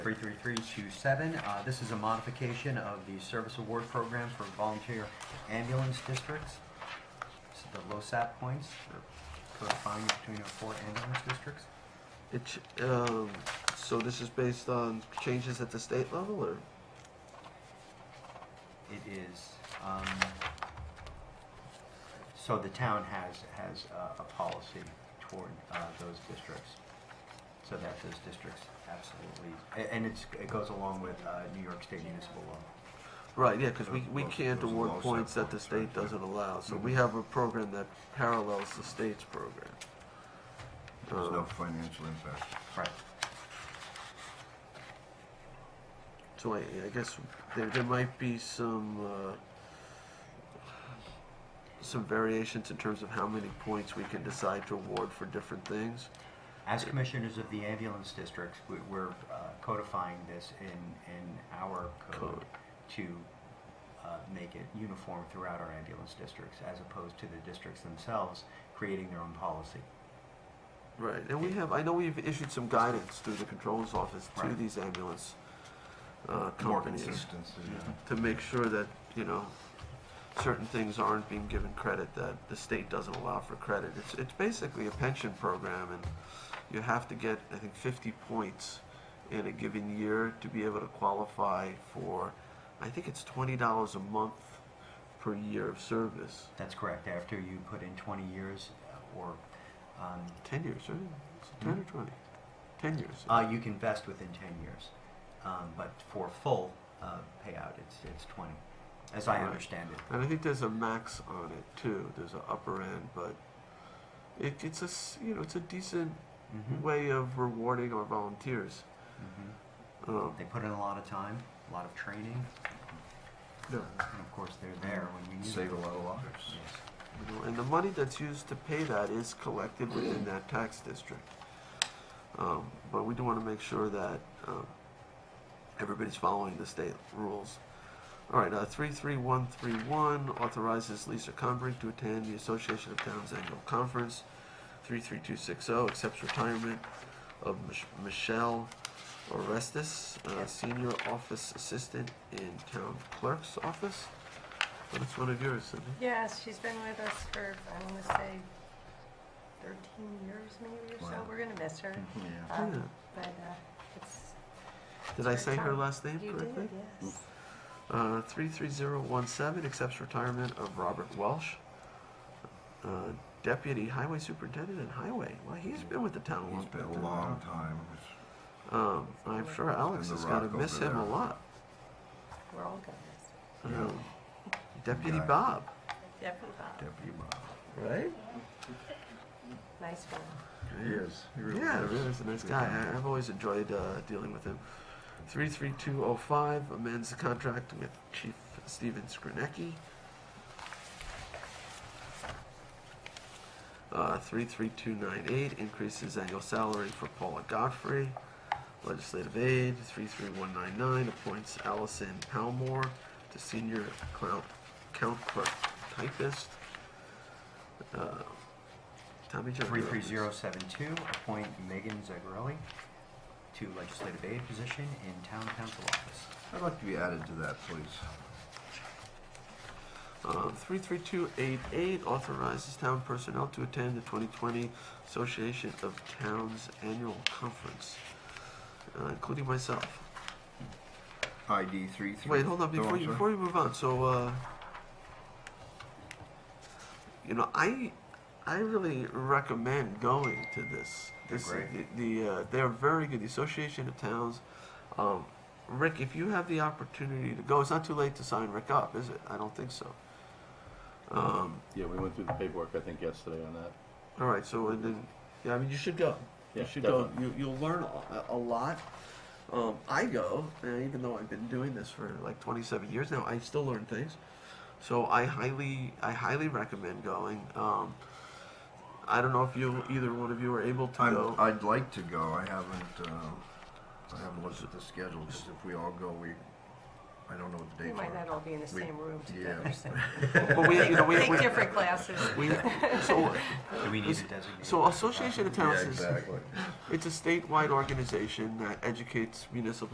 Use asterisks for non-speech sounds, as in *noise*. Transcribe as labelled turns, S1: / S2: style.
S1: 33327, uh, this is a modification of the service award program for volunteer ambulance districts. This is the LoSAP points for codifying between our four ambulance districts.
S2: It, ch- um, so this is based on changes at the state level, or?
S1: It is, um, so the town has, has uh, a policy toward uh, those districts, so that those districts absolutely, a- and it's, it goes along with uh, New York State municipal law.
S2: Right, yeah, because we, we
S3: Those-
S2: can't
S3: those are
S2: award
S3: low set
S2: points that the
S3: points,
S2: state
S3: right, yeah. Mm-hmm.
S2: doesn't allow, so we have a program that parallels the state's program.
S3: There's
S2: Um,
S3: no financial impact.
S1: Right.
S2: So I, I guess there, there might be some, uh, some variations in terms of how many points we can decide to award for different things.
S1: As commissioners of the ambulance districts, we- we're uh, codifying this in, in our code
S2: Code.
S1: to uh, make it uniform throughout our ambulance districts, as opposed to the districts themselves creating their own policy.
S2: Right, and we have, I know we've issued some guidance through the controller's office to
S1: Right.
S2: these ambulance, uh,
S3: More
S2: companies.
S3: consistency, yeah.
S2: to make sure that, you know, certain things aren't being given credit that the state doesn't allow for credit. It's, it's basically a pension program and you have to get, I think, 50 points in a given year to be able to qualify for, I think it's $20 a month per year of service.
S1: That's correct. After you put in 20 years uh, or, um,
S2: 10 years, right? Is it 10 or 20? 10 years.
S1: uh, you can vest within 10 years. Um, But for full uh, payout, it's, it's 20, as I
S2: Right.
S1: understand it.
S2: And I think there's a max on it too. There's an upper end, but it, it's a s- you know it's a decent
S1: Mhm.
S2: way of rewarding our volunteers.
S1: Mhm.
S2: Um,
S1: They put in a lot of time, a lot of training,
S2: no.
S1: and of course, they're there when we need them.
S3: Save a lot of lives.
S1: Yes.
S2: you know, and the money that's used to pay that is collected within that tax district. Um, but we do want to make sure that um, everybody's following the state rules. All right, uh, 33131 authorizes Lisa Conbrick to attend the Association of Towns Annual Conference. 33260 accepts retirement of Mich- Michelle Orestes, uh, Senior Office Assistant in Town Clerk's Office. That's one of yours, Cindy.
S4: Yes, she's been with us for, I want to say, 13 years maybe or so.
S3: Wow.
S4: We're going to miss her.
S3: Yeah.
S4: Um,
S2: Yeah.
S4: But uh, it's,
S2: Did I
S4: her
S2: say her
S4: turn.
S2: last name
S4: you
S2: correctly?
S4: did, yes.
S2: Uh, 33017 accepts retirement of Robert Welsh, uh, Deputy Highway Superintendent and Highway. Well, he's been with the town a long
S3: It's been a
S2: time.
S3: long time.
S2: Um, I'm sure Alex
S3: Been the
S2: has got to
S3: rock
S2: miss
S3: over
S2: him a
S3: there.
S2: lot.
S4: We're all going to
S3: Yeah.
S2: Um, Deputy
S3: Guy.
S2: Bob,
S4: miss her. Deputy Bob,
S3: Deputy Bob.
S2: right?
S4: nice one.
S3: He is. He really
S2: Yeah,
S3: is.
S2: really is a nice
S3: Good
S2: guy.
S3: guy.
S2: I, I've always enjoyed uh, dealing with him. 33205 amends the contract with Chief Steven Skrinecki. Uh, 33298 increases annual salary for Paula Godfrey. Legislative aid 33199 appoints Allison Palmore to senior count, count clerk typist. Uh, Tommy John. you're up next.
S1: 33072, appoint Megan Zagarelli to legislative aid position in town council office.
S3: I'd like to be added to that, please.
S2: Uh, 33288 authorizes town personnel to attend the 2020 Association of Towns Annual Conference, uh, including myself.
S3: ID three three.
S2: Wait, hold on,
S3: Oh,
S2: before
S3: I'm
S2: you,
S3: sorry.
S2: before you move on, so, uh, you know, I, I really recommend going to this.
S1: They're
S2: This-
S1: great.
S2: The, the, uh, they're very good, the Association of Towns. Um, Rick, if you have the opportunity to go, it's not too late to sign Rick up, is it? I don't think so. Um,
S5: Yeah, we went through the paperwork, I think, yesterday on that.
S2: All right, so and then, yeah, I mean, you should go.
S5: Yeah,
S2: you should
S5: definitely.
S2: go. You, you'll learn a, a lot. Um, I go, and even though I've been doing this for like 27 years now, I still learn things. So I highly, I highly recommend going. Um, I don't know if you, either one of you, are able to go.
S3: I'm, I'd like to go. I haven't, um, I haven't looked at the schedule, because if we all go, we, I don't know what the
S4: We
S3: dates
S4: might not
S3: are.
S4: all be in the
S3: We-
S4: same room
S3: yeah.
S2: *laughs*
S4: together. so-
S2: but we, you know, we,
S4: Take
S2: we,
S4: different classes.
S2: we
S4: *laughs*
S2: so,
S1: Do we need to designate?
S2: so Association of *laughs*
S3: Yeah,
S2: Towns is
S3: exactly.
S2: it's a statewide organization that educates municipal.